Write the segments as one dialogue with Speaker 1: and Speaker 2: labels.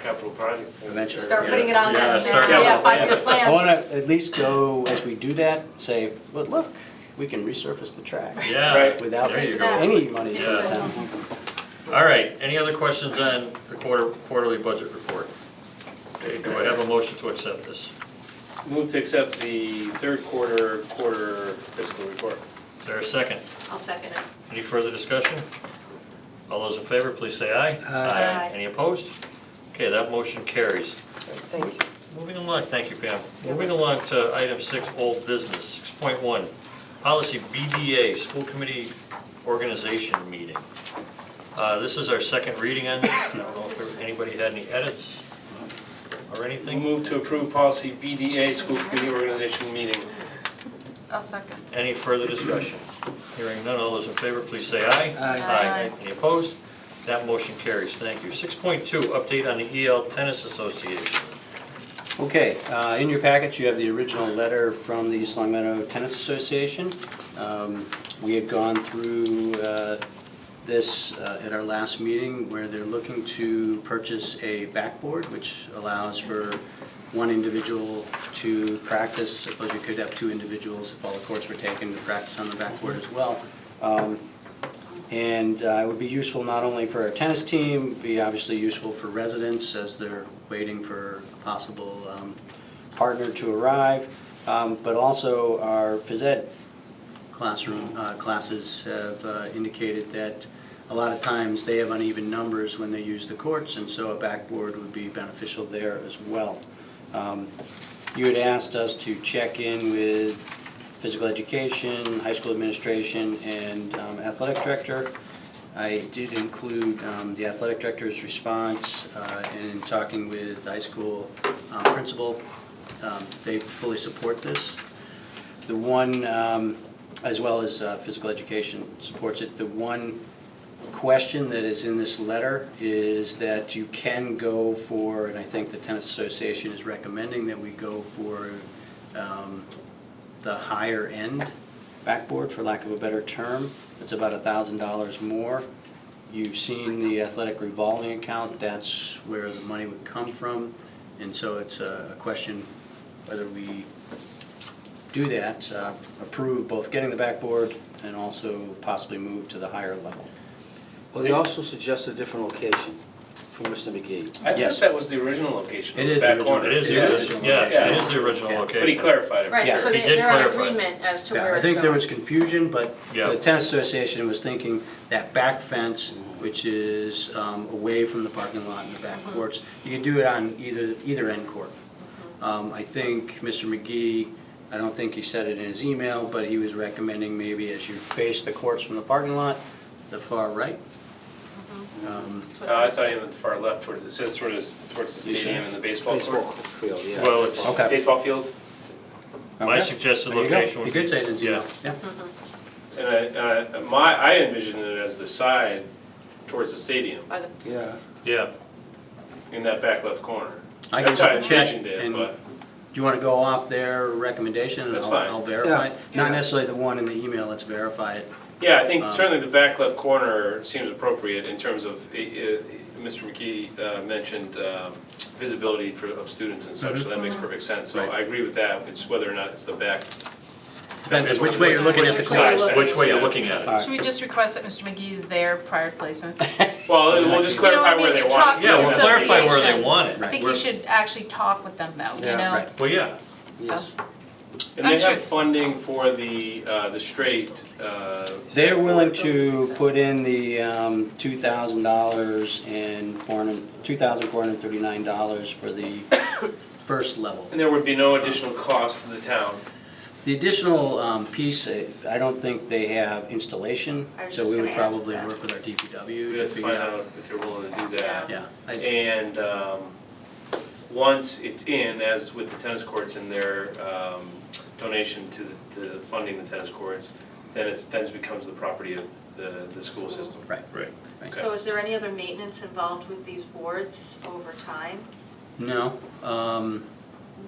Speaker 1: capital projects.
Speaker 2: Eventually.
Speaker 3: Start putting it on
Speaker 1: Yeah,
Speaker 3: that,
Speaker 1: start
Speaker 3: yeah,
Speaker 1: with a plan.
Speaker 3: five-year
Speaker 2: I
Speaker 3: plan.
Speaker 2: want to at least go, as we do that, say, but look, we can resurface the track
Speaker 4: Yeah,
Speaker 1: Right.
Speaker 2: without
Speaker 4: there you go.
Speaker 2: any money from the
Speaker 4: Yeah.
Speaker 2: town.
Speaker 4: All right, any other questions on the quarter, quarterly budget report? Okay, do I have a motion to accept this?
Speaker 1: Move to accept the third quarter, quarter fiscal report.
Speaker 4: Is there a second?
Speaker 3: I'll second it.
Speaker 4: Any further discussion? All those in favor, please say aye.
Speaker 3: Aye.
Speaker 4: Any opposed? Okay, that motion carries.
Speaker 5: Thank you.
Speaker 4: Moving along, thank you Pam. Moving along to item six, old business, six point one, policy BDA, school committee organization meeting. Uh, this is our second reading on, this. I don't know if there- anybody had any edits or anything.
Speaker 1: Move to approve policy BDA, school committee organization meeting.
Speaker 3: I'll second.
Speaker 4: Any further discussion? Hearing none, all those in favor, please say aye.
Speaker 2: Aye.
Speaker 4: Any opposed? That motion carries, thank you. Six point two, update on the EL Tennis Association.
Speaker 2: Okay, uh, in your package, you have the original letter from the East Long Meadow Tennis Association. Um, We had gone through uh, this uh, at our last meeting where they're looking to purchase a backboard, which allows for one individual to practice. Suppose you could have two individuals if all the courts were taken to practice on the backboard as well. Um, and uh, it would be useful not only for our tennis team, be obviously useful for residents as they're waiting for a possible um, partner to arrive, um, but also our phys ed classroom, uh, classes have uh, indicated that a lot of times they have uneven numbers when they use the courts, and so a backboard would be beneficial there as well. Um, You had asked us to check in with physical education, high school administration, and um, athletic director. I did include um, the athletic director's response uh, in talking with high school um, principal. Um, They fully support this. The one, um, as well as uh, physical education supports it, the one question that is in this letter is that you can go for, and I think the tennis association is recommending that we go for um, the higher end backboard, for lack of a better term. It's about a thousand dollars more. You've seen the athletic revolving account, that's where the money would come from. And so it's a a question whether we do that, uh, approve both getting the backboard and also possibly move to the higher level.
Speaker 5: Well, they also suggest a different location for Mr. McGee.
Speaker 1: I thought
Speaker 2: Yes.
Speaker 1: that was the original location.
Speaker 2: It is
Speaker 1: back
Speaker 2: the original.
Speaker 1: corner.
Speaker 4: It is
Speaker 2: Yeah.
Speaker 4: the original, yeah, it is the
Speaker 2: Yeah.
Speaker 4: original location.
Speaker 1: But he clarified it.
Speaker 3: Right,
Speaker 2: Yeah.
Speaker 3: so
Speaker 4: He
Speaker 3: they-
Speaker 4: did
Speaker 3: they're on
Speaker 4: clarify.
Speaker 3: agreement as to
Speaker 2: Yeah,
Speaker 3: where
Speaker 2: I
Speaker 3: it's
Speaker 2: think there
Speaker 3: going.
Speaker 2: was confusion, but
Speaker 4: Yeah.
Speaker 2: the tennis association was thinking that back fence, which is um, away from the parking lot and the back courts, you can do it on either, either end court. Um, I think Mr. McGee, I don't think he said it in his email, but he was recommending maybe as you face the courts from the parking lot, the far right. Um,
Speaker 1: Uh, I thought he meant the far left towards, it says towards, towards the
Speaker 2: You see?
Speaker 1: stadium and the baseball court.
Speaker 5: field, yeah.
Speaker 4: Oh, Well, it's-
Speaker 2: Okay.
Speaker 1: Baseball field,
Speaker 4: My
Speaker 2: okay.
Speaker 4: suggested
Speaker 2: There you go.
Speaker 4: location would
Speaker 2: He did say it in his
Speaker 4: be-
Speaker 2: email, yeah.
Speaker 1: and I, uh, my, I envisioned it as the side towards the stadium,
Speaker 3: By the-
Speaker 5: Yeah.
Speaker 4: Yeah,
Speaker 1: in that back left corner.
Speaker 2: I can
Speaker 1: That's how I
Speaker 2: double check
Speaker 1: envisioned it,
Speaker 2: and-
Speaker 1: but,
Speaker 2: Do you want to go off their recommendation and
Speaker 1: That's
Speaker 2: I'll
Speaker 1: fine.
Speaker 2: I'll verify?
Speaker 5: Yeah.
Speaker 2: it? Not necessarily the one in the email, let's verify it.
Speaker 1: yeah, I think
Speaker 2: Um,
Speaker 1: certainly the back left corner seems appropriate in terms of, uh, uh, Mr. McKee uh, mentioned um, visibility for, of students and such, so that makes perfect sense. So
Speaker 2: Right.
Speaker 1: I agree with that, it's whether or not it's the back.
Speaker 2: Depends on which way you're looking at the
Speaker 3: Which way
Speaker 2: course. Uh,
Speaker 3: you're
Speaker 4: Which- which way you're looking at
Speaker 2: All
Speaker 4: it.
Speaker 2: right.
Speaker 6: Should we just request that Mr. McGee's there prior to placement?
Speaker 1: Well, we'll just
Speaker 6: You know what I
Speaker 1: clarify
Speaker 6: mean,
Speaker 1: where they
Speaker 6: to
Speaker 1: want
Speaker 6: talk
Speaker 1: it.
Speaker 4: yeah, we'll clarify where they
Speaker 6: Association.
Speaker 4: want it.
Speaker 6: I think you
Speaker 4: We're-
Speaker 6: should actually talk with them though, you
Speaker 5: Yeah.
Speaker 6: know?
Speaker 2: Right.
Speaker 4: Well, yeah,
Speaker 5: Yes.
Speaker 1: And they
Speaker 6: I'm sure
Speaker 1: have
Speaker 6: it's-
Speaker 1: funding for the, uh, the straight, uh,
Speaker 2: They're willing to put in the um, $2,000 and four hundred- $2,439 for the first level.
Speaker 1: and there would be no additional cost to the town.
Speaker 2: The additional um, piece, eh, I don't think they have installation,
Speaker 3: I was
Speaker 2: so
Speaker 3: just
Speaker 2: we would
Speaker 3: gonna ask
Speaker 2: probably
Speaker 3: that.
Speaker 2: work with our DPW
Speaker 1: We'd
Speaker 2: to
Speaker 1: have to
Speaker 2: figure
Speaker 1: find
Speaker 2: out.
Speaker 1: out if they're willing to do that.
Speaker 2: Yeah, I-
Speaker 1: And, um, once it's in, as with the tennis courts and their, um, donation to the, to funding the tennis courts, then it's, then it becomes the property of the, the school system.
Speaker 2: right.
Speaker 4: right.
Speaker 2: Right.
Speaker 3: So is there any other maintenance involved with these boards over time?
Speaker 2: No. um,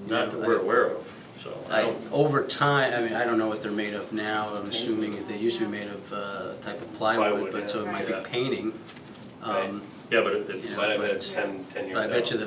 Speaker 4: Not that we're aware of, so. I
Speaker 2: I,
Speaker 4: don't-
Speaker 2: over time, I mean, I don't know what they're made of now, I'm assuming that they used to be made of uh, type of plywood,
Speaker 1: Plywood,
Speaker 2: but so it
Speaker 3: yeah.
Speaker 2: might be
Speaker 4: Right.
Speaker 2: painting. Um,
Speaker 4: Yeah, but it- it's.
Speaker 1: Might have
Speaker 2: but-
Speaker 1: been ten, ten years
Speaker 2: But I bet
Speaker 1: out.
Speaker 2: you the